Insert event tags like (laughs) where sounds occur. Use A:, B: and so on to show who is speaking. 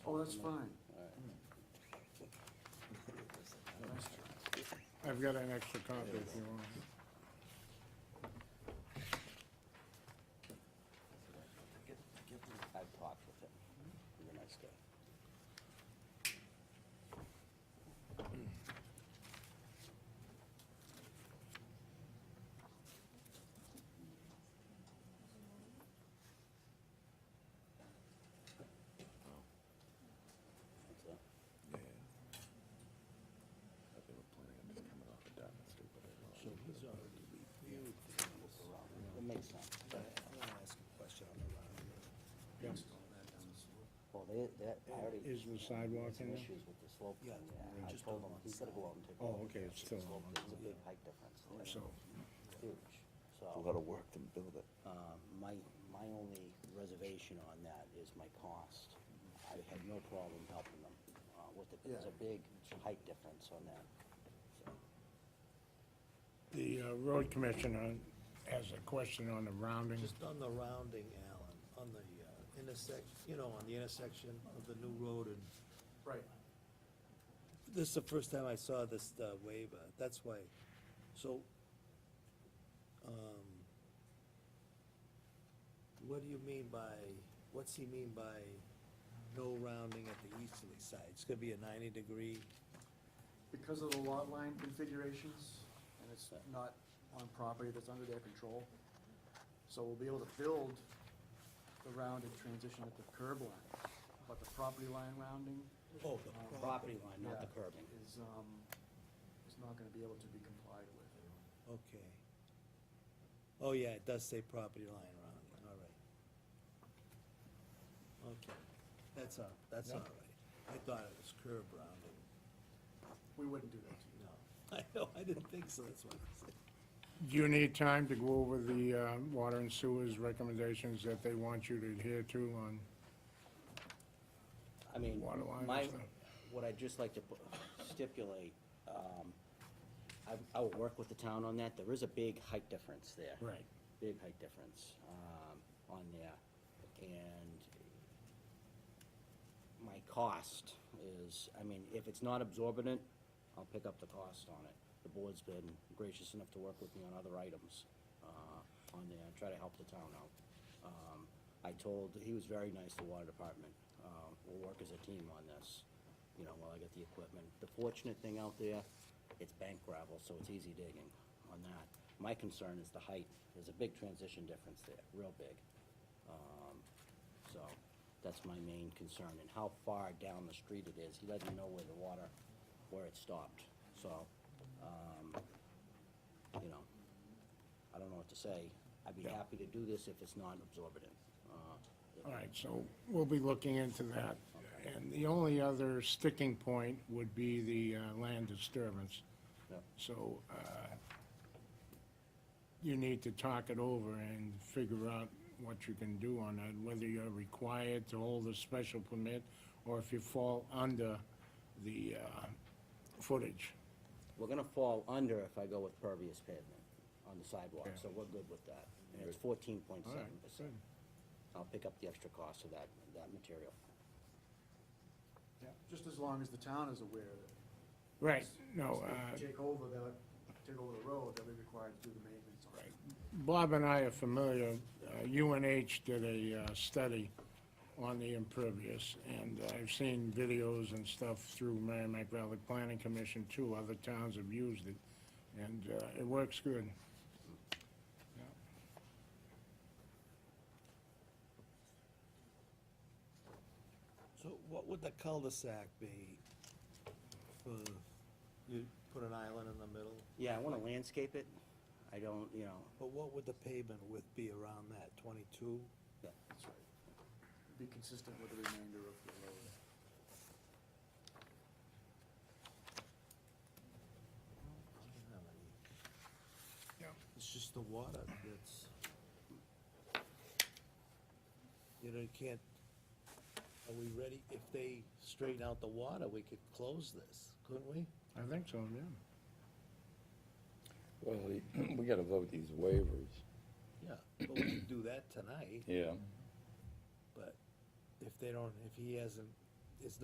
A: Oh, that's fine.
B: I've got an extra copy if you want.
C: I talked with him. He's a nice guy. What's that? It makes sense. Well, they, that, I already.
B: Is the sidewalk
C: Some
B: in there?
C: issues with the slope.
D: Yeah,
C: thing, yeah,
D: we
C: I
D: just
C: told
D: don't
C: him,
D: want
C: he's gotta go out and take. a
B: Oh,
C: look
B: okay,
C: at
B: it's
C: the
B: still
C: slope.
B: on.
C: There's a big height difference there.
B: So,
C: Huge,
E: A
C: so,
E: lot of work to build it.
C: uh, my, my only reservation on that is my cost. I had no problem helping them, uh, with it, there's a big height difference on that, so.
B: the uh, road commissioner has a question on the rounding.
D: Just on the rounding, Alan, on the uh, intersect, you know, on the intersection of the new road and,
A: Right.
D: this is the first time I saw this uh, waiver, that's why. So, um, what do you mean by, what's he mean by no rounding at the easterly side? It's gonna be a ninety degree?
A: Because of the lot line configurations, and it's not on property that's under their control. So we'll be able to build the rounded transition at the curb line, but the property line rounding
D: Oh,
A: the
C: Property line, not the
A: Yeah.
C: curbing.
A: is, um, is not gonna be able to be complied with.
D: Okay. Oh, yeah, it does say property line around, all right. Okay, that's all, that's all right. I thought it was curb rounding,
A: We wouldn't do that to you.
D: no. (laughs) I know, I didn't think so, that's what I said.
B: Do you need time to go over the uh, water and sewers recommendations that they want you to adhere to on?
C: I mean,
B: Water line and
C: my,
B: stuff.
C: what I'd just like to pu- stipulate, um, I, I will work with the town on that, there is a big height difference there.
B: Right.
C: Big height difference, um, on there, and my cost is, I mean, if it's not absorbent, I'll pick up the cost on it. The board's been gracious enough to work with me on other items, uh, on there, and try to help the town out. Um, I told, he was very nice, the water department, uh, we'll work as a team on this, you know, while I get the equipment. The fortunate thing out there, it's bank gravel, so it's easy digging on that. My concern is the height, there's a big transition difference there, real big. Um, so that's my main concern and how far down the street it is. He doesn't know where the water, where it stopped. So, um, you know, I don't know what to say. I'd be happy to do this if it's not absorbent. Uh, if-
B: All right, so we'll be looking into that. And the only other sticking point would be the uh, land disturbance.
C: Yep.
B: So uh, you need to talk it over and figure out what you can do on it, whether you're required to hold a special permit or if you fall under the uh, footage.
C: We're gonna fall under if I go with pervious pavement on the sidewalk, so we're good with that. And it's fourteen point
B: All right,
C: seven percent.
B: good.
C: I'll pick up the extra cost of that, that material.
A: Yeah. Just as long as the town is aware of it.
B: Right, no,
A: If
B: uh,
A: they Take over that, take over the road, they'll be required to do the maintenance on it.
B: Bob and I are familiar, Uh, UNH did a uh, study on the impervious, and I've seen videos and stuff through Merrimack Valley Planning Commission too, other towns have used it, and uh, it works good.
D: So what would the cul-de-sac be? For, you put an island in the middle,
C: Yeah, I wanna landscape it. I don't, you know,
D: but what would the pavement width be around that, twenty-two?
A: That's right. Be consistent with the remainder of the road.
D: It's just the water that's. You know, you can't, are we ready, if they straighten out the water, we could close this, couldn't we?
B: I think so, yeah.
F: Well, the- (clears throat) we gotta vote these waivers.
D: Yeah, but we could do that tonight,
F: Yeah.
D: but if they don't, if he hasn't